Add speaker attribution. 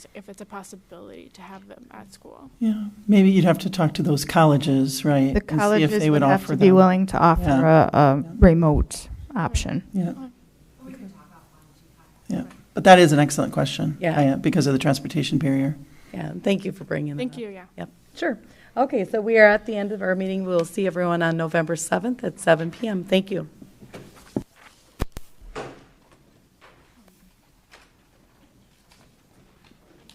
Speaker 1: if it's a possibility to have them at school.
Speaker 2: Yeah, maybe you'd have to talk to those colleges, right? and
Speaker 3: The
Speaker 2: see if
Speaker 3: colleges
Speaker 2: they
Speaker 3: would have
Speaker 2: offer
Speaker 3: to be
Speaker 2: them.
Speaker 3: willing to offer
Speaker 2: Yeah.
Speaker 3: a, a remote option.
Speaker 2: Yeah. Yeah, but that is an excellent question.
Speaker 4: Yeah.
Speaker 2: I, uh, Because of the transportation barrier.
Speaker 4: Yeah, thank you for bringing that up.
Speaker 1: Thank you, yeah.
Speaker 4: Yep, sure. Okay, so we are at the end of our meeting. We'll see everyone on November 7th at seven PM. Thank you.